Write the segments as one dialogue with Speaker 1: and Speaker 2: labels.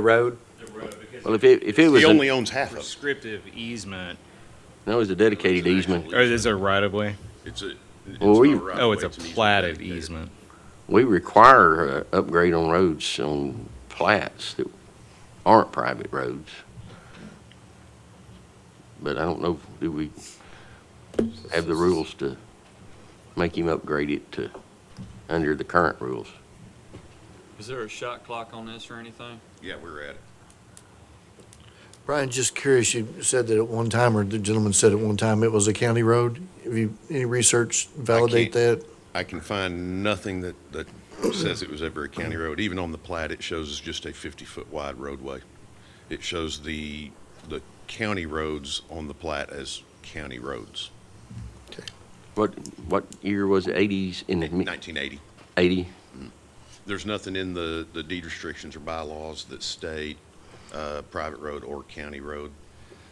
Speaker 1: the road?
Speaker 2: the road because
Speaker 3: Well, if it, if it was,
Speaker 4: He
Speaker 3: a-
Speaker 4: only owns half of it.
Speaker 2: prescriptive easement.
Speaker 3: that was a dedicated easement,
Speaker 2: Or is it a right of way?
Speaker 5: It's a. it's
Speaker 3: Well, we-
Speaker 5: not right of
Speaker 2: Oh,
Speaker 5: way,
Speaker 2: it's a
Speaker 5: an easement
Speaker 2: platted
Speaker 5: dedicated.
Speaker 2: easement.
Speaker 3: we require uh, upgrade on roads, on plats that aren't private roads. But I don't know, do we have the rules to make him upgrade it to, under the current rules?
Speaker 6: Is there a shot clock on this or anything?
Speaker 5: Yeah, we're at it.
Speaker 7: Brian, just curious, you said that at one time, or the gentleman said at one time, it was a county road. Have you, any research validate that?
Speaker 4: I can find nothing that, that says it was ever a county road. Even on the plat, it shows it's just a fifty-foot wide roadway. It shows the, the county roads on the plat as county roads.
Speaker 3: What, what year was it, eighties, in the
Speaker 4: Nineteen eighty.
Speaker 3: eighty?
Speaker 4: There's nothing in the, the deed restrictions or bylaws that state, uh, private road or county road.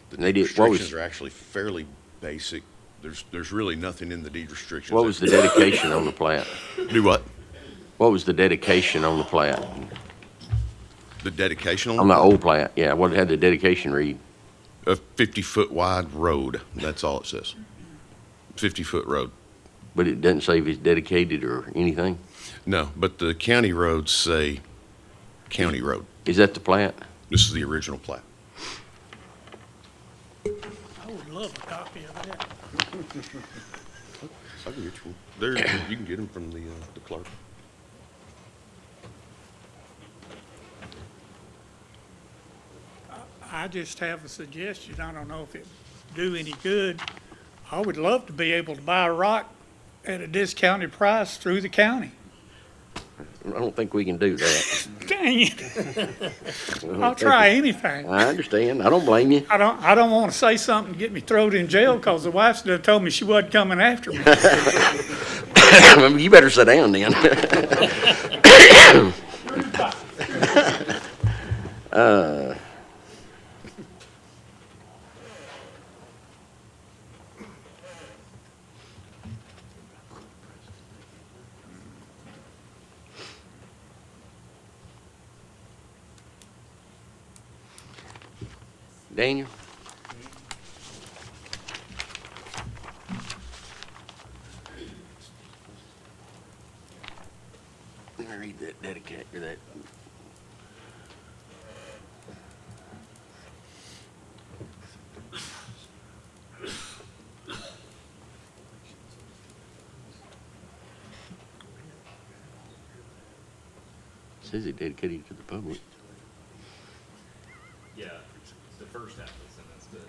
Speaker 4: The
Speaker 3: They
Speaker 4: deed
Speaker 3: did- what was-
Speaker 4: restrictions are actually fairly basic. There's, there's really nothing in the deed restrictions.
Speaker 3: What
Speaker 4: that-
Speaker 3: was the dedication on the plat?
Speaker 4: Do what?
Speaker 3: What was the dedication on the plat?
Speaker 4: The dedication on
Speaker 3: On
Speaker 4: the
Speaker 3: the old plat, yeah, what had the dedication read?
Speaker 4: a 50 foot wide road. That's all it says. 50 foot road.
Speaker 3: But it doesn't say if it's dedicated or anything?
Speaker 4: No, but the county roads say county road.
Speaker 3: Is that the plat?
Speaker 4: This is the original plat.
Speaker 8: I would love a copy of that.
Speaker 4: I can get you. There, you can get them from the, uh, the clerk.
Speaker 8: I just have a suggestion. I don't know if it do any good. I would love to be able to buy a rock at a discounted price through the county.
Speaker 3: I don't think we can do that.
Speaker 8: Dang it,
Speaker 3: I don't
Speaker 8: I'll
Speaker 3: think
Speaker 8: try
Speaker 3: we-
Speaker 8: anything.
Speaker 3: I understand. I don't blame you.
Speaker 8: I don't, I don't want to say something and get me thrown in jail because the wife still told me she wasn't coming after me.
Speaker 3: You better sit down then. Uh, Daniel? Let me read that dedicate, or that. Says it dedicated to the public.
Speaker 2: Yeah, the first half is in this, but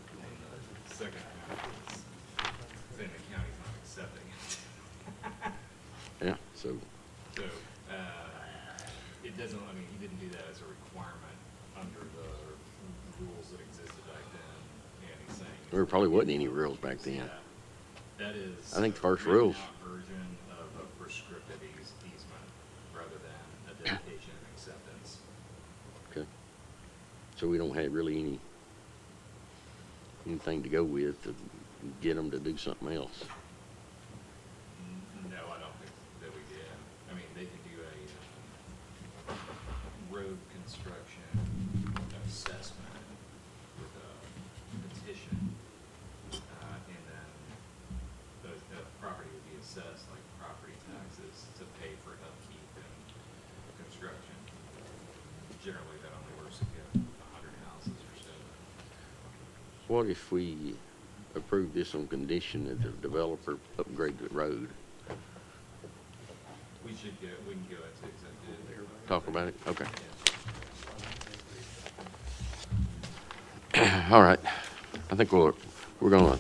Speaker 2: the second half is saying the county's not accepting it.
Speaker 3: Yeah, so.
Speaker 2: So, uh, it doesn't, I mean, he didn't do that as a requirement under the rules that existed back then. And he's saying.
Speaker 3: There probably wasn't any rules back then.
Speaker 2: That is.
Speaker 3: I think
Speaker 2: a
Speaker 3: first
Speaker 2: written
Speaker 3: rules.
Speaker 2: out Version of a prescriptive eas- easement rather than a dedication and acceptance.
Speaker 3: Okay. So we don't have really any, anything to go with to get them to do something else.
Speaker 2: N- No, I don't think that we did. I mean, they can do a um, road construction assessment with a petition. uh, And then the, the property would be assessed like property taxes to pay for upkeep and construction. Generally, that only works if you have a hundred houses or so.
Speaker 3: What if we approve this on condition that the developer upgrade the road?
Speaker 2: We should go, we can go into executive.
Speaker 3: Talk about it? Okay. All right. I think we're, we're gonna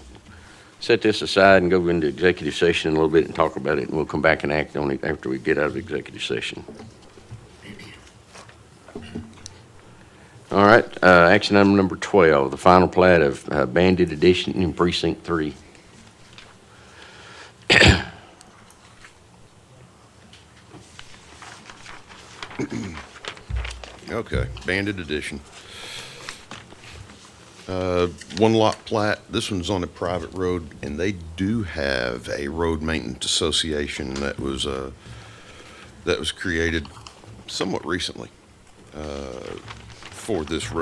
Speaker 3: set this aside and go into executive session in a little bit and talk about it, and we'll come back and act on it after we get out of executive session. All right, uh, action item number 12, the final plat of uh, Bandit Edition in Precinct 3.
Speaker 4: Okay, banded edition. Uh, One lot plat, this one's on a private road, and they do have a road maintenance association that was, uh, that was created somewhat recently. Uh, for this road